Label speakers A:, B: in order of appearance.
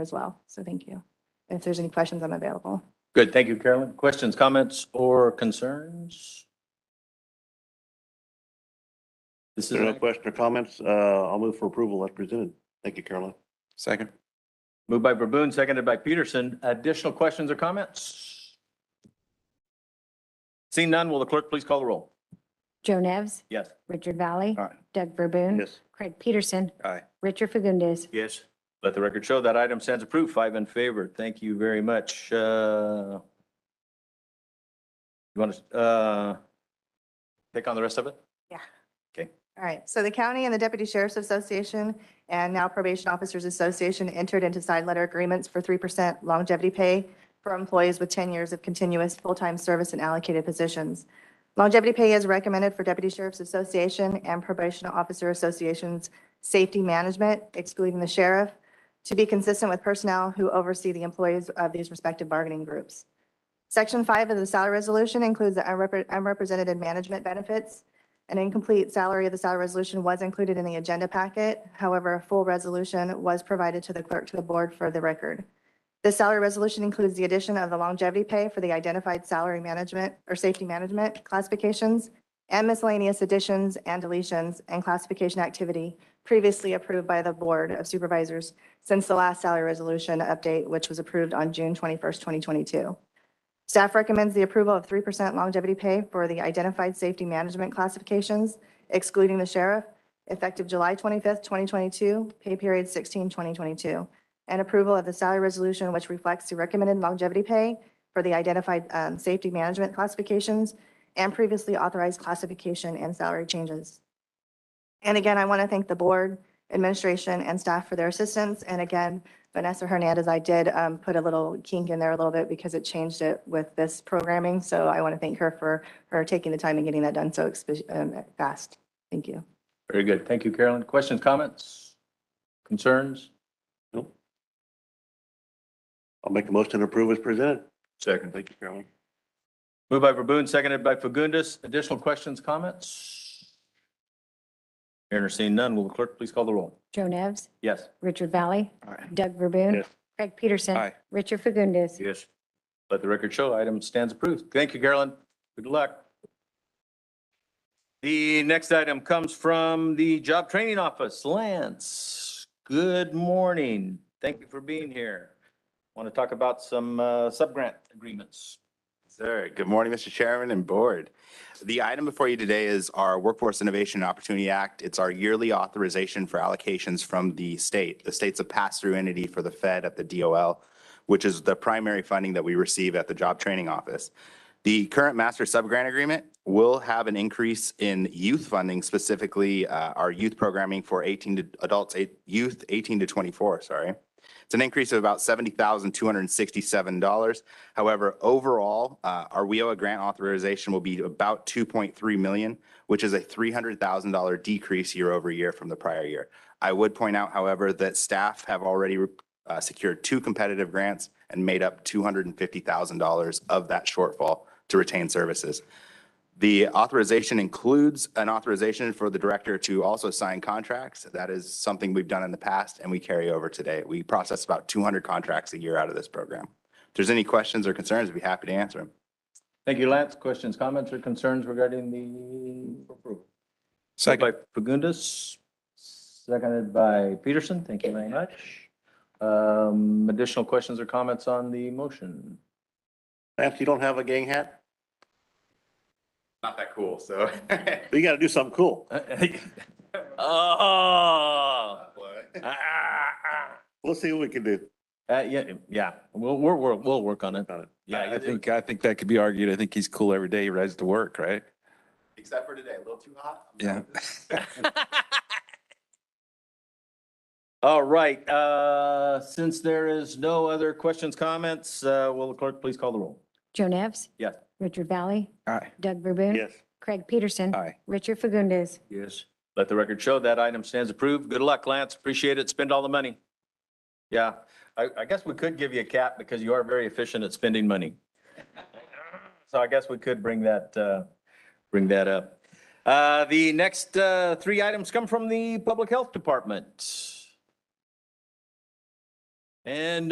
A: as well. So thank you. And If there's any questions, I'm available.
B: Good, thank you, Carolyn. Questions, comments, or concerns? This is,
C: There are no question or comments. Uh, I'll move for approval as presented. Thank you, Caroline.
D: Second.
B: moved by Verboen, seconded by Peterson. Additional questions or comments? Seeing none, will the clerk please call the roll?
E: Joe Nevs,
B: Yes.
E: Richard Valley.
D: Aye.
E: Doug Verboon.
C: Yes.
E: Craig Peterson.
D: Aye.
E: Richard Fagundes.
B: Yes. Let the record show that item stands approved, five in favor. Thank you very much. Uh, You want to, uh, take on the rest of it?
A: All right, so the county and the Deputy Sheriff's Association and now Probation Officers Association entered into side letter agreements for 3% longevity pay for employees with 10 years of continuous full-time service in allocated positions. Longevity pay is recommended for Deputy Sheriff's Association and Probation Officer Association's safety management, excluding the sheriff, to be consistent with personnel who oversee the employees of these respective bargaining groups. Section 5 of the salary resolution includes the unrepre- unrepresented management benefits. An incomplete salary of the salary resolution was included in the agenda packet. However, a full resolution was provided to the clerk to the board for the record. The salary resolution includes the addition of the longevity pay for the identified salary management or safety management classifications and miscellaneous additions and deletions and classification activity previously approved by the Board of Supervisors since the last salary resolution update, which was approved on June 21st, 2022. Staff recommends the approval of 3% longevity pay for the identified safety management classifications, excluding the sheriff, effective July 25th, 2022, pay period 16, 2022, and approval of the salary resolution which reflects the recommended longevity pay for the identified um, safety management classifications and previously authorized classification and salary changes. And again, I want to thank the board, administration, and staff for their assistance. And again, Vanessa Hernandez, I did um, put a little kink in there a little bit because it changed it with this programming. So I want to thank her for, for taking the time and getting that done so expe- um, fast. Thank you.
B: Very good. Thank you, Carolyn. Questions, comments, concerns?
C: I'll make a motion to approve as presented.
B: Second.
C: Thank you, Caroline.
B: Moved by Verboen, seconded by Fagundes. Additional questions, comments? Hearing or seeing none, will the clerk please call the roll?
E: Joe Nevs,
B: Yes.
E: Richard Valley.
D: Aye.
E: Doug Verboon.
C: Yes.
E: Craig Peterson.
D: Aye.
E: Richard Fagundes.
B: Yes. Let the record show, item stands approved. Thank you, Carolyn. Good luck. The next item comes from the Job Training Office. Lance, good morning. Thank you for being here. Want to talk about some uh, subgrant agreements.
F: Sir, good morning, Mr. Chairman and Board. The item before you today is our Workforce Innovation and Opportunity Act. It's our yearly authorization for allocations from the state. The state's a pass-through entity for the Fed at the DOL, which is the primary funding that we receive at the Job Training Office. The current master subgrant agreement will have an increase in youth funding, specifically uh, our youth programming for 18 to adults, eight- youth 18 to 24, sorry. It's an increase of about seventy thousand, two hundred and sixty-seven dollars. However, overall, uh, our WIOA grant authorization will be about two point three million, which is a three hundred thousand dollar decrease year over year from the prior year. I would point out, however, that staff have already uh, secured two competitive grants and made up two hundred and fifty thousand dollars of that shortfall to retain services. The authorization includes an authorization for the director to also sign contracts. That is something we've done in the past and we carry over today. We process about 200 contracts a year out of this program. If there's any questions or concerns, I'd be happy to answer them.
B: Thank you, Lance. Questions, comments, or concerns regarding the approval? Moved
D: Second.
B: By Fagundes, seconded by Peterson. Thank you very much. Um, Additional questions or comments on the motion?
C: Lance, you don't have a gang hat?
F: Not that cool, so.
C: But You got to do something cool.
B: Uh, Oh.
C: We'll see what we can do.
B: Yeah, yeah, we'll, we'll, we'll, we'll work on it.
C: Got it.
B: Yeah,
D: I think, I think that could be argued. I think he's cool every day. He rides to work, right?
F: Except for today, a little too hot.
D: Yeah.
B: All right, uh, since there is no other questions, comments, uh, will the clerk please call the roll?
E: Joe Nevs.
B: Yes.
E: Richard Valley.
D: Aye.
E: Doug Verboon.
C: Yes.
E: Craig Peterson.
D: Aye.
E: Richard Fagundes.
B: Yes. Let the record show that item stands approved. Good luck, Lance. Appreciate it. Spend all the money. Yeah, I, I guess we could give you a cap because you are very efficient at spending money. So I guess we could bring that, uh, bring that up. Uh, the next, uh, three items come from the Public Health Department. And